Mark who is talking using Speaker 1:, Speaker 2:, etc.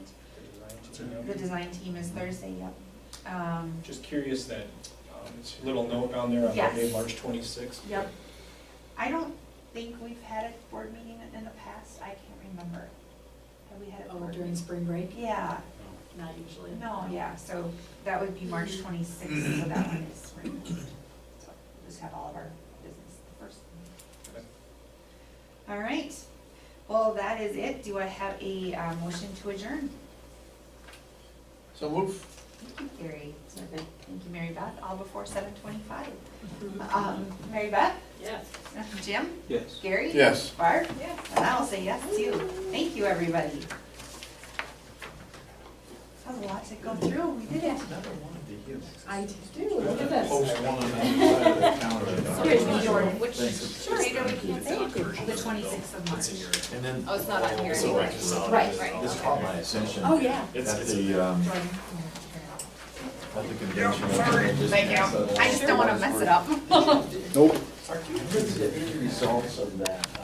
Speaker 1: The design team is Thursday, yep. Um,
Speaker 2: Just curious that, um, it's a little note down there on
Speaker 1: Yes.
Speaker 2: Monday, March twenty-sixth.
Speaker 1: Yep. I don't think we've had a board meeting in the past, I can't remember. Have we had a
Speaker 3: Oh,
Speaker 1: board?
Speaker 3: during
Speaker 1: meeting?
Speaker 3: spring break?
Speaker 1: Yeah,
Speaker 3: Not usually.
Speaker 1: no, yeah, so that would be March twenty-sixth, so that one is removed. So we'll Just have all of our business the first.
Speaker 2: Okay.
Speaker 1: All right, well, that is it. Do I have a uh, motion to adjourn?
Speaker 4: So move.
Speaker 1: Thank you, Gary. Thank you, Mary Beth, all before seven twenty-five. Um, Mary Beth,
Speaker 3: Yes.
Speaker 1: Jim,
Speaker 4: Yes.
Speaker 1: Gary?
Speaker 4: Yes.
Speaker 1: Barb? Yeah. And I'll say yes too. Thank you, everybody. That was a lot to go through. We did it.
Speaker 3: I do, look at this.
Speaker 4: Post one on that side of the counter.
Speaker 1: Here's me, Jordan, which,
Speaker 4: Thanks.
Speaker 1: sure, we can't say it. The twenty-sixth of March.
Speaker 4: And then.
Speaker 5: Oh, it's not on here
Speaker 4: So I
Speaker 5: anyway.
Speaker 4: just-
Speaker 3: Right,
Speaker 5: right.
Speaker 4: This caught my attention.
Speaker 3: Oh, yeah.
Speaker 4: At the, um,
Speaker 1: Jordan.
Speaker 4: at the convention.
Speaker 1: Thank you. I just don't wanna mess it up.
Speaker 4: What is the end results of that?